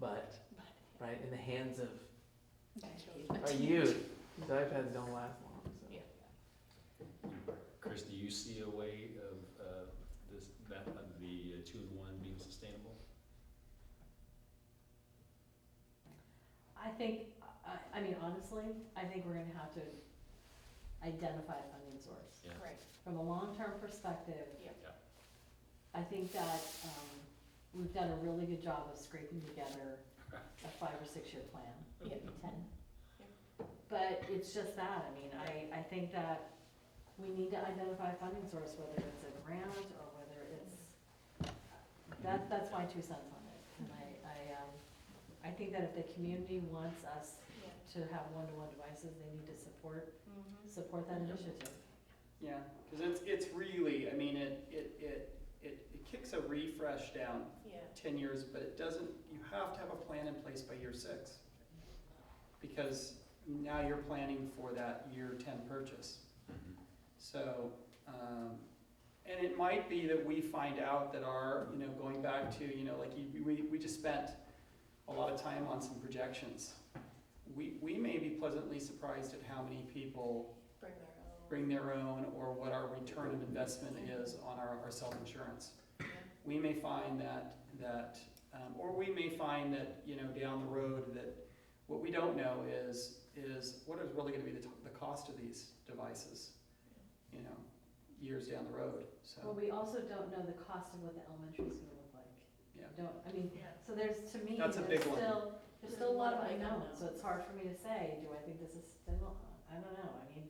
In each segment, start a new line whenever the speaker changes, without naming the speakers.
but, right, in the hands of
But-
our youth, these iPads don't last long, so.
Yeah.
Chris, do you see a way of, uh, this, that, of the uh, two-in-one being sustainable?
I think, I, I mean, honestly, I think we're gonna have to identify a funding source.
Yeah.
Right.
From a long-term perspective.
Yep.
Yeah.
I think that, um, we've done a really good job of scraping together a five or six-year plan,
Yeah.
maybe ten. But it's just that, I mean, I, I think that we need to identify a funding source, whether it's a grant or whether it's, that, that's my two cents on it. And I, I, um, I think that if the community wants us
Yeah.
to have one-to-one devices, they need to support, support that initiative.
Yeah, because it's, it's really, I mean, it, it, it, it it kicks a refresh down
Yeah.
ten years, but it doesn't, you have to have a plan in place by year six. Because now you're planning for that year ten purchase. So, um, and it might be that we find out that our, you know, going back to, you know, like you, we, we just spent a lot of time on some projections. We, we may be pleasantly surprised at how many people
Bring their own.
bring their own or what our return of investment is on our, our self-insurance. We may find that, that, um, or we may find that, you know, down the road that what we don't know is, is what is really gonna be the, t- the cost of these devices? You know, years down the road,
Well,
so,
we also don't know the cost of what the elementary is gonna look like.
Yeah.
Don't, I mean,
Yeah.
so there's, to me, there's
That's a big one.
still, there's still a lot of
There's a lot of unknowns.
unknowns, so it's hard for me to say, do I think this is still, I don't know, I mean,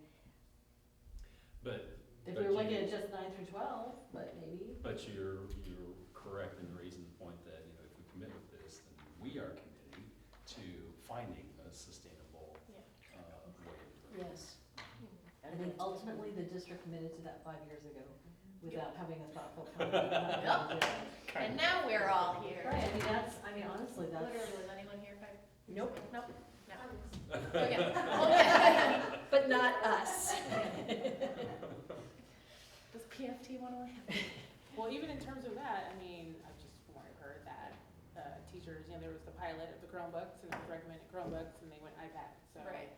But,
if
But
you're looking
you-
at just nine through twelve, but maybe,
but you're, you're correct in raising the point that, you know, if we commit with this, then we are committing to finding a sustainable,
Yeah.
uh, way. of doing
Yes.
Mhm.
I mean, ultimately, the district committed to that five years ago without having a thoughtful plan.
And now we're all here.
Right, I mean, that's, I mean, honestly, that's,
Literally, was anyone here five?
Nope.
Nope, no. Oh,
it.
Okay, okay.
But not us.
Does PFT want to have?
Well, even in terms of that, I mean, I've just more heard that, uh, teachers, you know, there was the pilot of the Chromebooks and it was recommended Chromebooks and they went iPad, so. I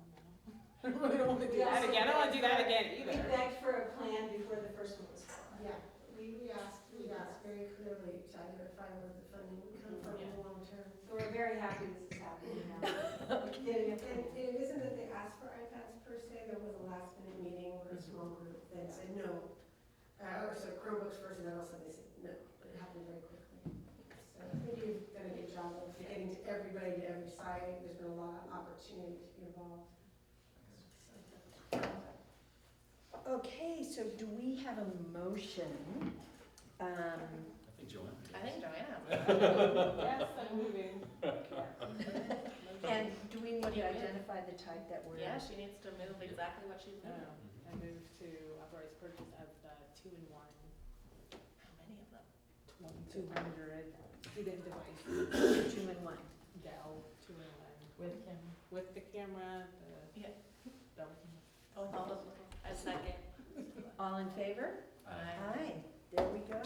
don't know. I don't really wanna do
We
that
also
again, I don't wanna do that
had-
again
We
either.
begged for a plan before the first one was formed.
Yeah, we, we asked, we asked very clearly to identify where the funding would come from in the long term.
So we're very happy this is happening now.
And, and it isn't that they asked for iPads per se, there was a last minute meeting where a
Mm-hmm.
small group then said no. Uh, or so Chromebooks first and then also they said no, but it happened very quickly. So I think you've done a good job of getting to everybody, to every side, there's been a lot of opportunity to be involved.
Okay, so do we have a motion? Um,
I think Joanne.
I think Joanna.
Yes, I'm moving.
And do we need
What do
to
you mean?
identify the type that we're?
Yeah, she needs to move exactly what she's
No,
moving.
I move to authorize purchase of the two-in-one,
How many of them?
two hundred student device,
Two and one.
Dell two-in-one,
with Kim.
with the camera, the.
Yeah.
Double
Oh, it's all those. A second.
All in favor?
Aye.
Aye, there we go.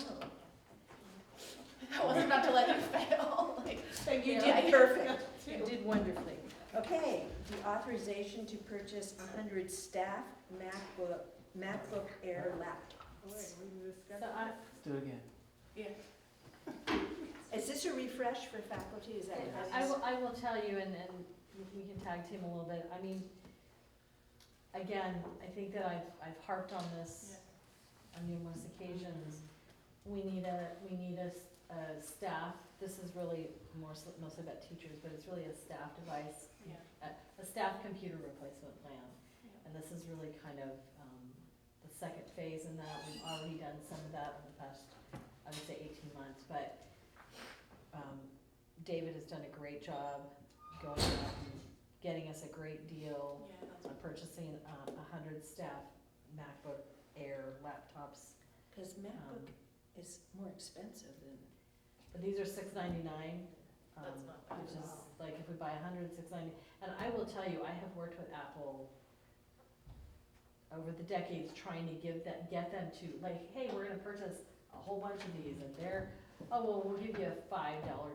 I wasn't about to let you fail, like.
Thank
you.
did perfect. You did wonderfully. Okay, the authorization to purchase hundred staff MacBook, MacBook Air
All right,
laptops.
we can discuss.
So uh, I,
Let's do it again.
Yeah.
Is this a refresh for faculty? Is that? what
I
this is?
will, I will tell you, and, and we can tag team a little bit, I mean, again, I think that I've, I've harped on this on numerous occasions. We need a, we need a, s- a staff, this is really more, so- mostly about teachers, but it's really a staff device,
Yeah.
a, a staff computer replacement plan.
Yeah.
And this is really kind of, um, the second phase in that, we've already done some of that over the past, I would say eighteen months, but, um, David has done a great job going out and getting us a great deal
Yeah, that's
on purchasing, um, a hundred staff MacBook Air laptops.
Cause
Um,
MacBook is more expensive than.
But these are six ninety-nine. um,
That's not bad
Which
at
is,
all.
like, if we buy a hundred, six ninety, and I will tell you, I have worked with Apple over the decades trying to give that, get them to, like, hey, we're gonna purchase a whole bunch of these, and they're, oh, well, we'll give you a five dollar